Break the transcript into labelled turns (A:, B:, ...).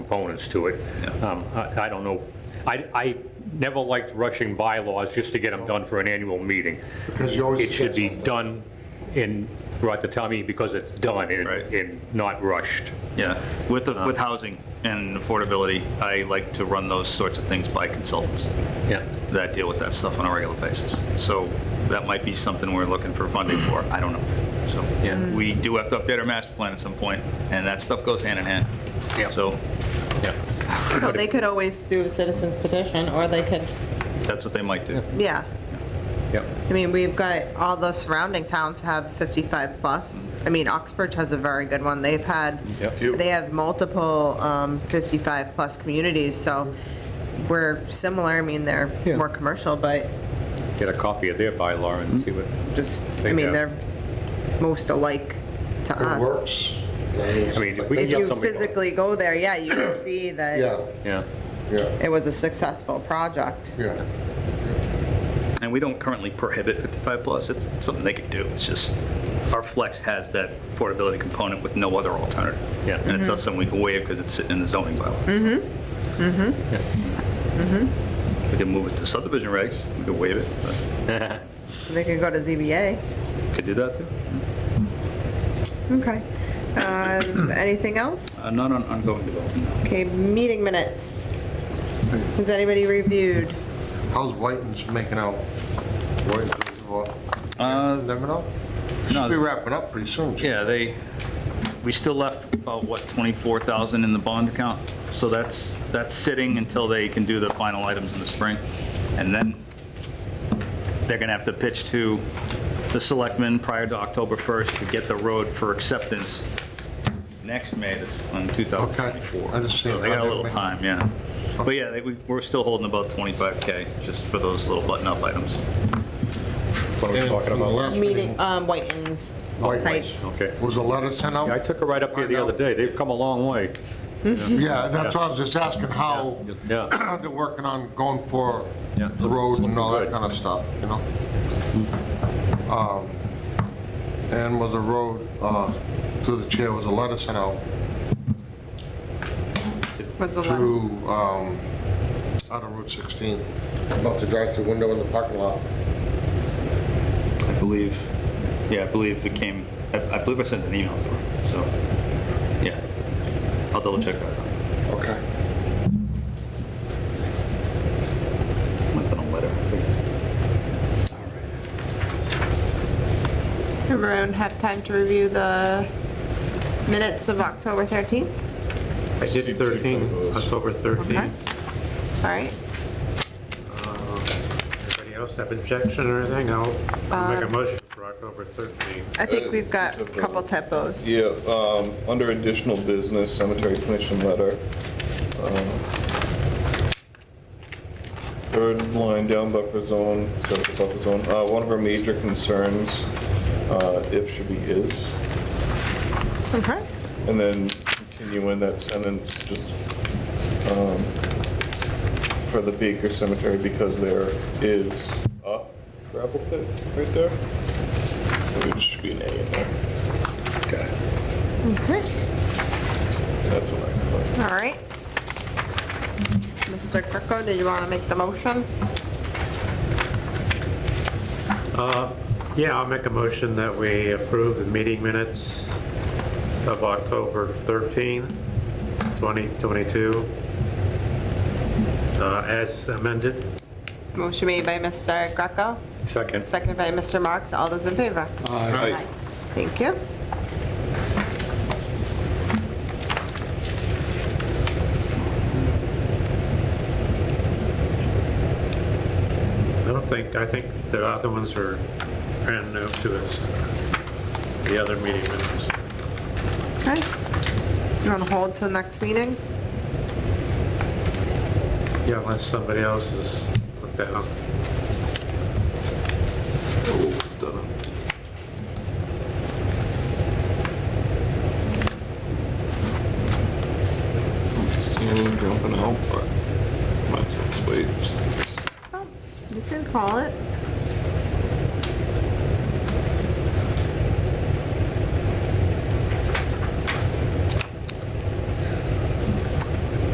A: components to it. Um, I I don't know, I, I never liked rushing bylaws just to get them done for an annual meeting.
B: Because you always
A: It should be
B: forget something.
A: done and brought to town meeting because it's done and-
C: Right.
A: and not rushed.
C: Yeah, with,
A: Uh-huh.
C: the- with housing and affordability, I like to run those sorts of things by consultants
A: Yeah.
C: that deal with that stuff on a regular basis. So that might be something we're looking for funding for, I don't know.
A: Yeah.
C: So we do have to update our master plan at some point, and that stuff goes hand in hand.
A: Yeah.
C: So
A: Yeah.
D: Well, they could always do a citizen's petition, or they could,
C: that's what they might do.
D: yeah.
A: Yep.
D: I mean, we've got, all the surrounding towns have 55 plus. I mean, Oxbridge has a very good one. They've had,
A: Yep. Few.
D: they have multiple 55-plus communities, so we're similar. I mean, they're
A: Yeah.
D: more commercial, but
A: Get a copy of their bylaw and see what,
D: just, I
A: They
D: mean,
A: have.
D: they're most alike to us.
B: It works. They-
A: I mean, if we can
D: If
A: get
D: you
A: somebody.
D: physically go there, yeah, you can see
B: Yeah,
D: that
A: Yeah,
B: yeah,
D: it was a successful project.
B: yeah.
C: And we don't currently prohibit 55 plus, it's something they could do, it's just, our flex has that affordability component with no other alternative.
A: Yeah.
C: And it's not something we can waive because it's sitting in the zoning bylaw. Mm-hmm, mm-hmm. We can move it to subdivision regs, we could waive it, but
D: They could go to ZBA.
C: could do that too.
D: Okay. Um, Anything else?
C: Uh, Not on ongoing development, no.
D: Okay, meeting minutes. Has anybody reviewed?
B: How's Whiten's making out? uh, Whiten's, what?
A: Uh,
B: Never know.
C: no.
B: Should be wrapping up pretty soon. shouldn't
C: Yeah, they, we still left about, what, 24,000 in the bond account? So that's, that's sitting until they can do the final items in the spring. And then they're going to have to pitch to the selectmen prior to October 1st to get the road for acceptance next May, that's on
B: Okay,
C: 2024.
B: I understand.
C: So They got a little time, yeah. But yeah, they- we- we're still holding about 25K just for those little button-up items.
A: what are we
B: And
A: talking
B: from the
A: about?
B: last
D: Meeting, um, Whitens.
B: Whitens.
D: Heights.
A: Okay.
B: Was a letter sent
A: Yeah, I
B: out?
A: took a ride up here the other day. They've come a long way.
B: Yeah, that's why I was just asking how
A: Yeah.
B: they're working on going for
A: Yeah.
B: the road and all that
A: Good.
B: kind of stuff, you know? Um, And was a road, uh, through the chair, was a letter sent out
D: Was the
B: to,
D: last.
B: um, out of Route 16, about the drive-through window in the parking lot.
C: I believe, yeah, I believe it came, I I believe I sent an email through, so, yeah. I'll double check that. uh, though.
B: Okay.
C: Might have been a letter. I forget.
D: Everyone have time to review the minutes of October 13th?
E: I did 13, October 13.
D: Okay. All right.
E: Anybody else have objection or anything? I'll I'll make a motion for October 13.
D: I think we've got a couple typos.
F: Yeah, um, under additional business, cemetery commission letter. um, Third line down buffer zone, separate buffer zone, uh, one of our major concerns, uh, if should be is.
D: Okay.
F: And then continue in that sentence, just, um, for the Baker Cemetery, because there is a gravel pit right there. There should be an A in there. Okay.
D: Okay.
F: That's what I put.
D: All right. Mr. Kirko, did you want to make the motion?
E: Yeah, I'll make a motion that we approve the meeting minutes of October 13, 2022, uh, as amended.
D: Motion made by Mr. Greco,
A: Second.
D: seconded by Mr. Marks. All those in favor? Aye. Thank you.
E: I don't think, I think the other ones are brand new to us, the other meeting minutes.
D: Okay. You want to hold till next meeting?
E: Yeah, unless somebody else has looked at them.
F: See anyone jumping out, but might as well just wait.
D: Oh, You can call it.